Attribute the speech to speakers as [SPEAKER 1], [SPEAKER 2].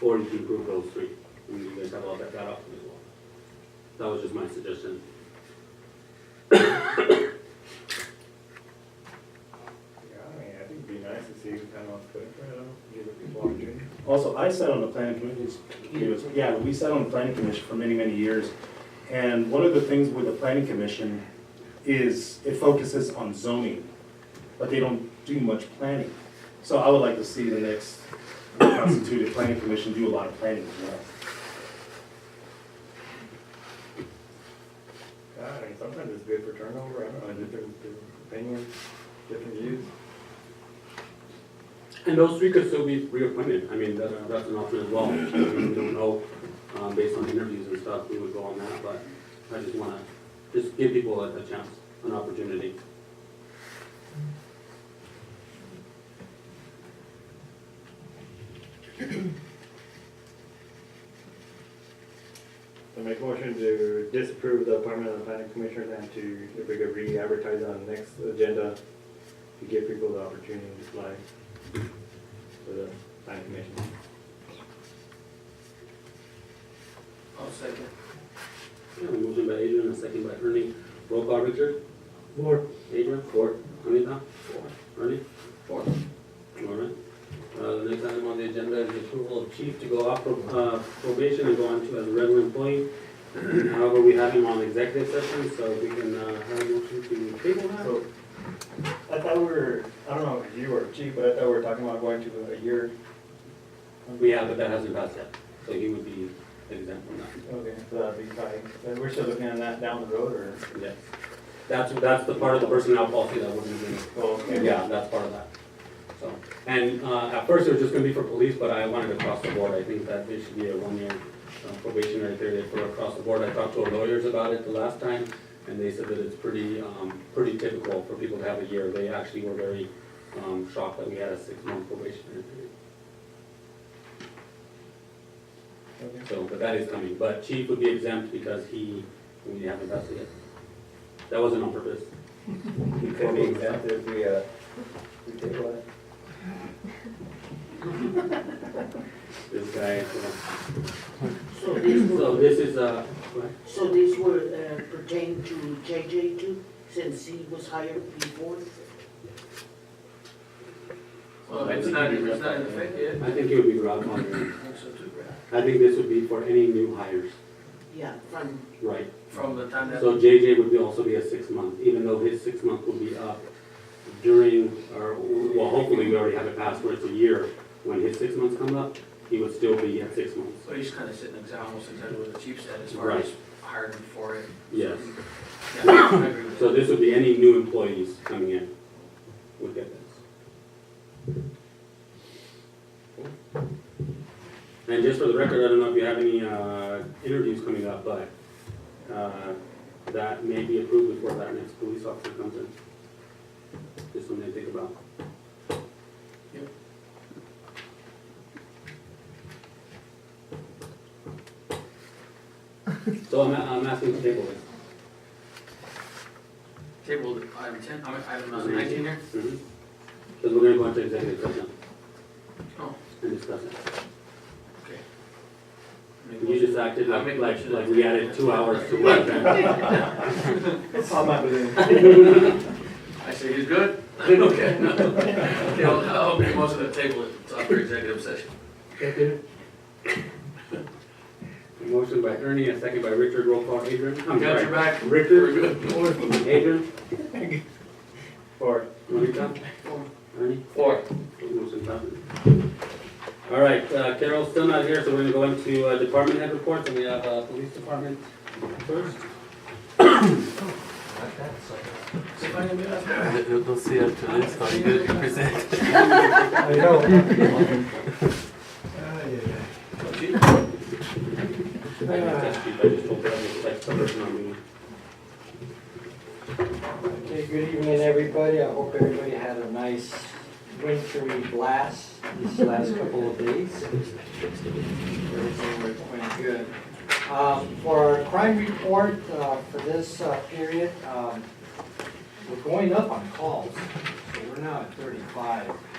[SPEAKER 1] or you can approve those three. I mean, you guys have all that, that option as well. That was just my suggestion.
[SPEAKER 2] Yeah, I mean, I think it'd be nice to see if anyone's good for it, give people opportunity.
[SPEAKER 3] Also, I sat on the planning commission, yeah, we sat on the planning commission for many, many years. And one of the things with the planning commission is it focuses on zoning, but they don't do much planning. So I would like to see the next constituted planning commission do a lot of planning as well.
[SPEAKER 2] Yeah, I mean, sometimes it's good for turnover, I don't know, different, different opinions, different views.
[SPEAKER 1] And those three could still be reappointed, I mean, that's, that's an option as well. I mean, We don't know, um, based on interviews and stuff, we would go on that, but I just wanna, just give people a, a chance, an opportunity.
[SPEAKER 2] So make a motion to disapprove the appointment of the planning commissioners and to, if we could re-advertise on the next agenda to give people the opportunity to apply for the planning commission.
[SPEAKER 4] I'll second.
[SPEAKER 1] Yeah, a motion by Adrian, a second by Ernie. Roll call, Richard?
[SPEAKER 2] Four.
[SPEAKER 1] Adrian? Four. Anita? Four. Ernie?
[SPEAKER 4] Four.
[SPEAKER 1] All right. Uh, the next item on the agenda is the approval of chief to go off pro- uh, probation and go on to as a regular employee. However, we have him on executive session, so we can, uh, have a motion to table that.
[SPEAKER 2] So, I thought we were, I don't know if you or chief, but I thought we were talking about going to a year.
[SPEAKER 1] We have, but that hasn't passed yet, so he would be exempt from that,
[SPEAKER 2] Okay, so that'd be probably, so we're still looking at that down the road or?
[SPEAKER 1] yes. That's, that's the part of the personnel policy that wouldn't be,
[SPEAKER 2] Oh, okay.
[SPEAKER 1] yeah, that's part of that. So, and, uh, at first it was just gonna be for police, but I wanted across the board, I think that it should be a one-year uh, probation right there for across the board. I talked to our lawyers about it the last time, and they said that it's pretty, um, pretty typical for people to have a year. They actually were very, um, shocked that we had a six-month probationary period.
[SPEAKER 2] Okay.
[SPEAKER 1] So, but that is coming, but chief would be exempt because he, we haven't vested it. That wasn't on purpose.
[SPEAKER 2] You could be exempt if we, uh, we table it.
[SPEAKER 1] This guy, so. So this is, uh, what?
[SPEAKER 5] So these were uh, pertain to JJ too, since he was hired before?
[SPEAKER 4] Well, it's not, it's not in effect yet.
[SPEAKER 1] I think it would be Rob Monahan.
[SPEAKER 4] I think so too, right?
[SPEAKER 1] I think this would be for any new hires,
[SPEAKER 5] Yeah, from,
[SPEAKER 1] right?
[SPEAKER 4] From the time that.
[SPEAKER 1] So JJ would be also be a six month, even though his six month will be up during, or, well, hopefully we already have it passed where it's a year. When his six months come up, he would still be at six months.
[SPEAKER 4] So he's kind of sitting exa- almost exactly what the chief said as far as hiring for it.
[SPEAKER 1] Yes.
[SPEAKER 4] Yeah, I agree with
[SPEAKER 1] So
[SPEAKER 4] that.
[SPEAKER 1] this would be any new employees coming in would get this. And just for the record, I don't know if you have any, uh, interviews coming up, but, uh, that may be approved before that next police officer comes in. Just something to think about.
[SPEAKER 4] Yep.
[SPEAKER 1] So I'm, I'm asking to table this.
[SPEAKER 4] Table item ten, I mean, item uh, nineteen here.
[SPEAKER 1] Mm-hmm. Because we're gonna go into executive session
[SPEAKER 4] Oh,
[SPEAKER 1] and discuss it.
[SPEAKER 4] okay.
[SPEAKER 1] You just acted
[SPEAKER 4] I
[SPEAKER 1] like,
[SPEAKER 4] make a
[SPEAKER 1] like
[SPEAKER 4] motion.
[SPEAKER 1] like we added two hours to work.
[SPEAKER 2] I'm not believing.
[SPEAKER 4] I say he's good? Okay. Okay, I'll, I'll make a motion to table it, it's up for executive session.
[SPEAKER 1] Motion by Ernie, a second by Richard, roll call Adrian. I'm
[SPEAKER 4] Got your
[SPEAKER 1] sorry.
[SPEAKER 4] back. We're
[SPEAKER 1] Richard,
[SPEAKER 4] good.
[SPEAKER 1] Adrian,
[SPEAKER 2] Or,
[SPEAKER 1] Monica, Ernie.
[SPEAKER 4] Four.
[SPEAKER 1] Motion passes. All right, uh, Carol's still not here, so we're gonna go into uh, department head reports, and we have uh, police department first.
[SPEAKER 4] See if I can do that.
[SPEAKER 6] Eu não sei after this how you going to present.
[SPEAKER 2] I know.
[SPEAKER 4] Chief?
[SPEAKER 1] I didn't test you, but I just told her I was like, person on me.
[SPEAKER 7] Okay, good evening, everybody. I hope everybody had a nice wintry blast these last couple of days. Everything went- went good. Um, For our crime report uh, for this uh, period, um, we're going up on calls, so we're now at thirty-five.